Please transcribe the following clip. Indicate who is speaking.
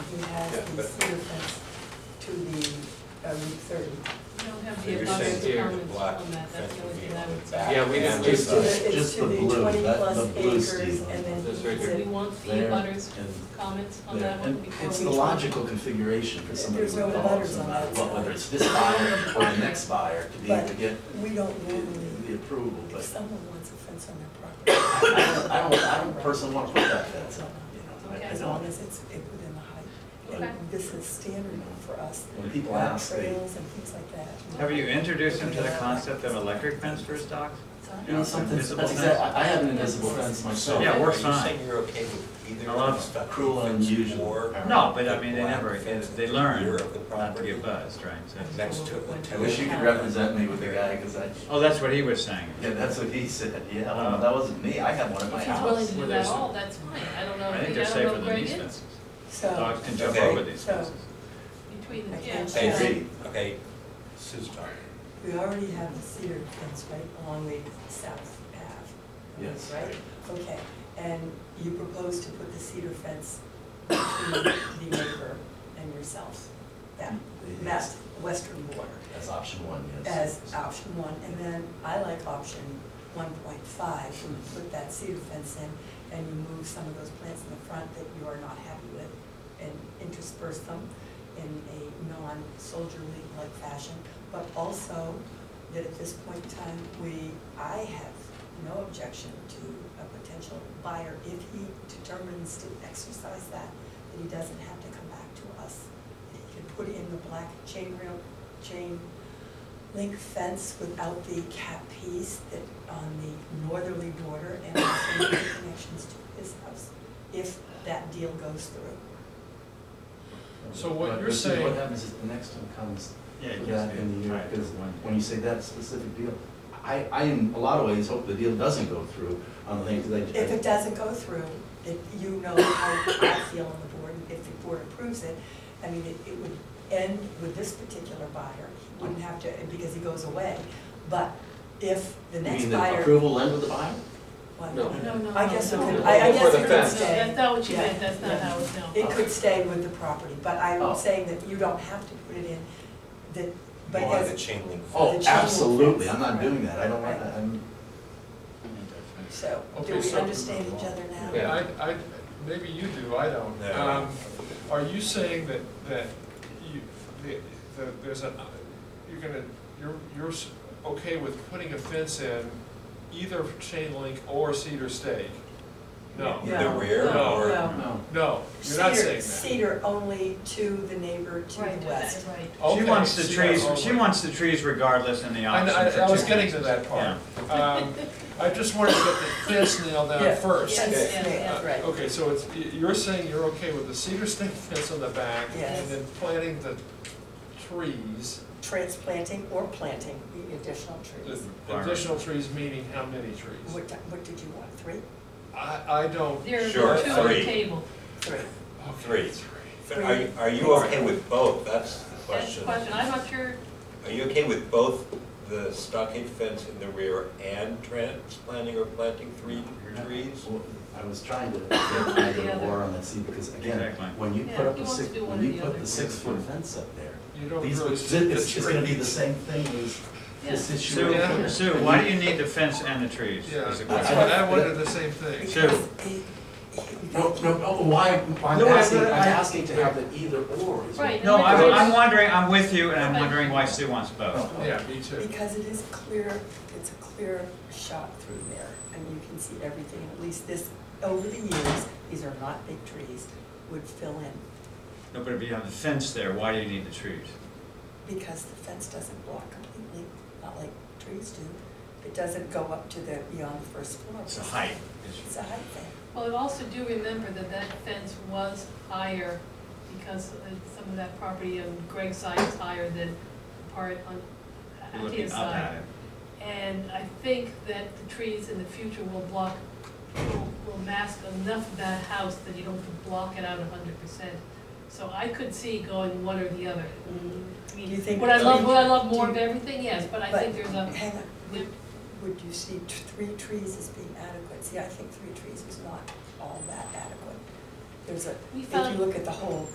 Speaker 1: Yeah,
Speaker 2: past the
Speaker 1: but-
Speaker 2: cedar fence to the uh, Route thirty.
Speaker 3: We don't have
Speaker 1: So
Speaker 3: the
Speaker 1: you're
Speaker 3: abundance
Speaker 1: saying here,
Speaker 3: comments
Speaker 1: black
Speaker 3: on that, that's
Speaker 1: fence
Speaker 3: the only
Speaker 1: would be
Speaker 3: thing I
Speaker 1: on
Speaker 3: would
Speaker 1: the
Speaker 3: say.
Speaker 1: back.
Speaker 4: Yeah, we didn't
Speaker 1: and the
Speaker 4: do
Speaker 2: It's to
Speaker 4: that.
Speaker 1: side.
Speaker 2: the,
Speaker 5: Just
Speaker 2: it's to
Speaker 5: the
Speaker 2: the
Speaker 5: blue,
Speaker 2: twenty
Speaker 5: that-
Speaker 2: plus
Speaker 5: the blue
Speaker 2: acres
Speaker 5: Steve
Speaker 2: and then
Speaker 1: This right
Speaker 2: it's
Speaker 1: here.
Speaker 3: We
Speaker 2: a-
Speaker 3: want the
Speaker 5: There
Speaker 3: butters
Speaker 5: and
Speaker 3: comments on
Speaker 5: there.
Speaker 3: that one
Speaker 5: And
Speaker 3: before we.
Speaker 5: it's the logical configuration for somebody
Speaker 2: There's
Speaker 5: who
Speaker 2: no
Speaker 5: follows
Speaker 2: butters on
Speaker 5: on
Speaker 2: that
Speaker 5: that, but
Speaker 2: side.
Speaker 5: whether it's this buyer or the next buyer to be able to
Speaker 2: But-
Speaker 5: get
Speaker 2: we don't
Speaker 5: the the
Speaker 2: normally,
Speaker 5: approval,
Speaker 2: if
Speaker 5: but
Speaker 2: someone wants a fence on their property,
Speaker 5: I don't, I don't, I don't personally want to put that fence up, you know, I- I
Speaker 3: Okay.
Speaker 2: as long
Speaker 5: don't.
Speaker 2: as it's it within the height.
Speaker 3: Okay.
Speaker 2: And this is standard for us.
Speaker 5: When people
Speaker 2: for
Speaker 5: ask, they-
Speaker 2: Trails and things like that.
Speaker 6: Have you introduced him to the concept of electric fence for his dogs?
Speaker 5: You know, something, that's
Speaker 6: Invisible
Speaker 5: exact,
Speaker 6: fence.
Speaker 5: I I have an invisible fence myself.
Speaker 6: Yeah, it works
Speaker 1: Are you
Speaker 6: fine.
Speaker 1: saying you're okay with either
Speaker 6: I
Speaker 1: of
Speaker 6: love
Speaker 1: those? stuff?
Speaker 5: Cruel and unusual.
Speaker 1: Or
Speaker 6: No, but I mean, they never, they they learn
Speaker 1: Europe and
Speaker 6: not to
Speaker 1: property.
Speaker 6: get buzzed, right? so-
Speaker 1: Next to a
Speaker 5: I
Speaker 1: hotel.
Speaker 5: wish you could represent me with the guy, because I,
Speaker 6: Oh, that's what he was saying.
Speaker 5: yeah, that's what he said, yeah, I don't know, that wasn't me, I had one at my
Speaker 3: If he's willing
Speaker 5: house.
Speaker 3: to do that all, that's fine, I don't know,
Speaker 6: I
Speaker 3: I
Speaker 6: think they're
Speaker 3: don't know
Speaker 6: safer
Speaker 3: if
Speaker 6: than
Speaker 3: Greg
Speaker 6: these
Speaker 3: is
Speaker 6: fences.
Speaker 2: So,
Speaker 6: Dogs can jump
Speaker 1: Okay.
Speaker 6: over these
Speaker 2: So-
Speaker 6: fences.
Speaker 3: between
Speaker 2: I
Speaker 3: the, yeah.
Speaker 2: can't
Speaker 1: Hey,
Speaker 2: Yeah.
Speaker 1: Reed, okay, Sue's talking.
Speaker 2: we already have the cedar fence right along the south path.
Speaker 5: Yes.
Speaker 2: Right? Okay, and you propose to put the cedar fence between the neighbor and yourself, that, that western border.
Speaker 5: That's option one, yes.
Speaker 2: as option one, and then I like option one point five, you put that cedar fence in, and you move some of those plants in the front that you are not happy with, and intersperse them in a non-soldierly-like fashion, but also that at this point in time, we, I have no objection to a potential buyer if he determines to exercise that, that he doesn't have to come back to us. That He can put in the black chain rail, chain link fence without the cap piece that on the northerly border and also the connections to his house, if that deal goes through.
Speaker 7: So what
Speaker 5: But-
Speaker 7: you're
Speaker 5: but see, What
Speaker 7: saying-
Speaker 5: happens is the next one comes
Speaker 6: Yeah,
Speaker 5: with
Speaker 6: you
Speaker 5: that
Speaker 6: just do
Speaker 5: in the year,
Speaker 6: it.
Speaker 5: because when you say that specific deal, I, I in a lot of ways hope the deal doesn't go through on the thing, because I.
Speaker 2: If it doesn't go through, if you know how I feel on the board, and if the board approves it, I mean, it, it would end with this particular buyer, he wouldn't have to, because he goes away. But if the
Speaker 5: You
Speaker 2: next
Speaker 5: mean the
Speaker 2: buyer.
Speaker 5: approval end with the buyer?
Speaker 2: What?
Speaker 4: No.
Speaker 3: No, no,
Speaker 2: I guess it
Speaker 3: no,
Speaker 2: could,
Speaker 3: no.
Speaker 2: I, I
Speaker 4: Before
Speaker 2: guess
Speaker 4: the
Speaker 2: it could
Speaker 4: fence.
Speaker 3: No,
Speaker 2: stay.
Speaker 3: that's not what you meant, that's
Speaker 2: Yeah.
Speaker 3: not how it's no.
Speaker 2: It could stay with the property, but I'm
Speaker 5: Oh.
Speaker 2: saying that you don't have to put it in, that, but
Speaker 1: You wanted a
Speaker 2: as,
Speaker 1: chain link fence.
Speaker 2: The
Speaker 5: Oh,
Speaker 2: chain
Speaker 5: absolutely,
Speaker 2: fence,
Speaker 5: I'm not
Speaker 2: right.
Speaker 5: doing that, I don't want, that. I'm,
Speaker 2: so, do
Speaker 7: Okay,
Speaker 2: we
Speaker 7: so-
Speaker 2: understand each other now?
Speaker 4: Yeah.
Speaker 7: I, I, maybe you do, I don't.
Speaker 1: No.
Speaker 7: Um, Are you saying that, that you, the- the, there's a, you're gonna, you're, you're s- okay with putting a fence in either chain link or cedar stake? No,
Speaker 1: In the
Speaker 2: No.
Speaker 1: rear
Speaker 7: No.
Speaker 1: or?
Speaker 2: No.
Speaker 5: no.
Speaker 7: no, you're
Speaker 2: Cedar-
Speaker 7: not saying that.
Speaker 2: Cedar only to the neighbor to
Speaker 3: Right,
Speaker 2: the west.
Speaker 3: right.
Speaker 6: She
Speaker 1: Oh,
Speaker 7: Okay,
Speaker 6: wants the
Speaker 7: cedar
Speaker 6: trees, she
Speaker 7: only.
Speaker 6: wants the trees regardless in the
Speaker 7: I,
Speaker 6: option.
Speaker 7: I,
Speaker 6: for
Speaker 7: I was
Speaker 6: two
Speaker 7: getting to
Speaker 6: reasons.
Speaker 7: that part. Um, I just wanted to get the fence nailed
Speaker 2: Yeah.
Speaker 7: down first.
Speaker 3: Yes,
Speaker 1: Okay.
Speaker 3: yes, yes.
Speaker 7: Uh, Okay, so it's, y- you're saying you're okay with the cedar stake fence on the back?
Speaker 2: Yes.
Speaker 7: And then planting the trees,
Speaker 2: Transplanting or planting the additional trees.
Speaker 7: the additional trees meaning how many trees?
Speaker 2: What, di- what did you want, three?
Speaker 7: I, I don't.
Speaker 3: There
Speaker 1: Sure,
Speaker 3: are two on the
Speaker 1: three.
Speaker 3: table.
Speaker 2: Three.
Speaker 1: Three.
Speaker 7: Okay,
Speaker 1: But Are, you- are you okay with both? That's the
Speaker 3: That's the
Speaker 1: question.
Speaker 3: question, I'm not sure,
Speaker 1: Are you okay with both the stockade fence in the rear and transplanting or planting three trees?
Speaker 5: Well, I was trying to get either or on that scene, because again,
Speaker 6: Exactly.
Speaker 5: when you put
Speaker 3: Yeah,
Speaker 5: up
Speaker 3: he
Speaker 5: a
Speaker 3: wants
Speaker 5: six,
Speaker 3: to do
Speaker 5: when
Speaker 3: one or
Speaker 5: you
Speaker 3: the
Speaker 5: put
Speaker 3: other.
Speaker 5: the six foot fence up there,
Speaker 7: You don't
Speaker 5: these,
Speaker 7: really
Speaker 5: it's,
Speaker 7: see the
Speaker 5: it's gonna be
Speaker 7: tree.
Speaker 5: the same thing as
Speaker 3: Yeah.
Speaker 5: this issue.
Speaker 6: Sue,
Speaker 5: over here.
Speaker 6: Sue, why do you need the fence and the trees?
Speaker 7: Yeah,
Speaker 6: is the
Speaker 7: that's
Speaker 6: question.
Speaker 7: what, I wondered the same thing.
Speaker 6: Sure.
Speaker 2: Because he- he-
Speaker 5: No, no, oh, why, I'm
Speaker 6: No, I-
Speaker 5: asking, I'm
Speaker 6: I-
Speaker 5: asking to have the either or. is what-
Speaker 3: Right.
Speaker 6: No, I'm,
Speaker 3: Because-
Speaker 6: I'm wondering, I'm with you, and I'm wondering why Sue wants
Speaker 5: Oh.
Speaker 6: both.
Speaker 7: Yeah, me too.
Speaker 2: Because it is clear, it's a clear shot through there, and you can see everything, at least this, over the years, these are not big trees, would fill in,
Speaker 6: No, but if you have the fence there, why do you need the trees?
Speaker 2: because the fence doesn't block completely, not like trees do. It doesn't go up to the, beyond the first floor.
Speaker 6: It's the height.
Speaker 2: It's a height thing.
Speaker 3: well, I also do remember that that fence was higher because uh, some of that property on Greg's side is higher than the part on
Speaker 6: You're
Speaker 3: Akia's
Speaker 6: looking up at
Speaker 3: side.
Speaker 6: it.
Speaker 3: And I think that the trees in the future will block, will, will mask enough of that house that you don't have to block it out a hundred percent. So I could see going one or the other. I mean,
Speaker 2: Mm-hmm. Do you think-
Speaker 3: Would I love, would I love more of
Speaker 2: Do you-
Speaker 3: everything? Yes, but I
Speaker 2: But-
Speaker 3: think there's a,
Speaker 2: Hang on, would, would you see t- three trees as being adequate? See, I think three trees is not all that adequate. There's a,
Speaker 3: We
Speaker 2: if
Speaker 3: found-
Speaker 2: you look at the whole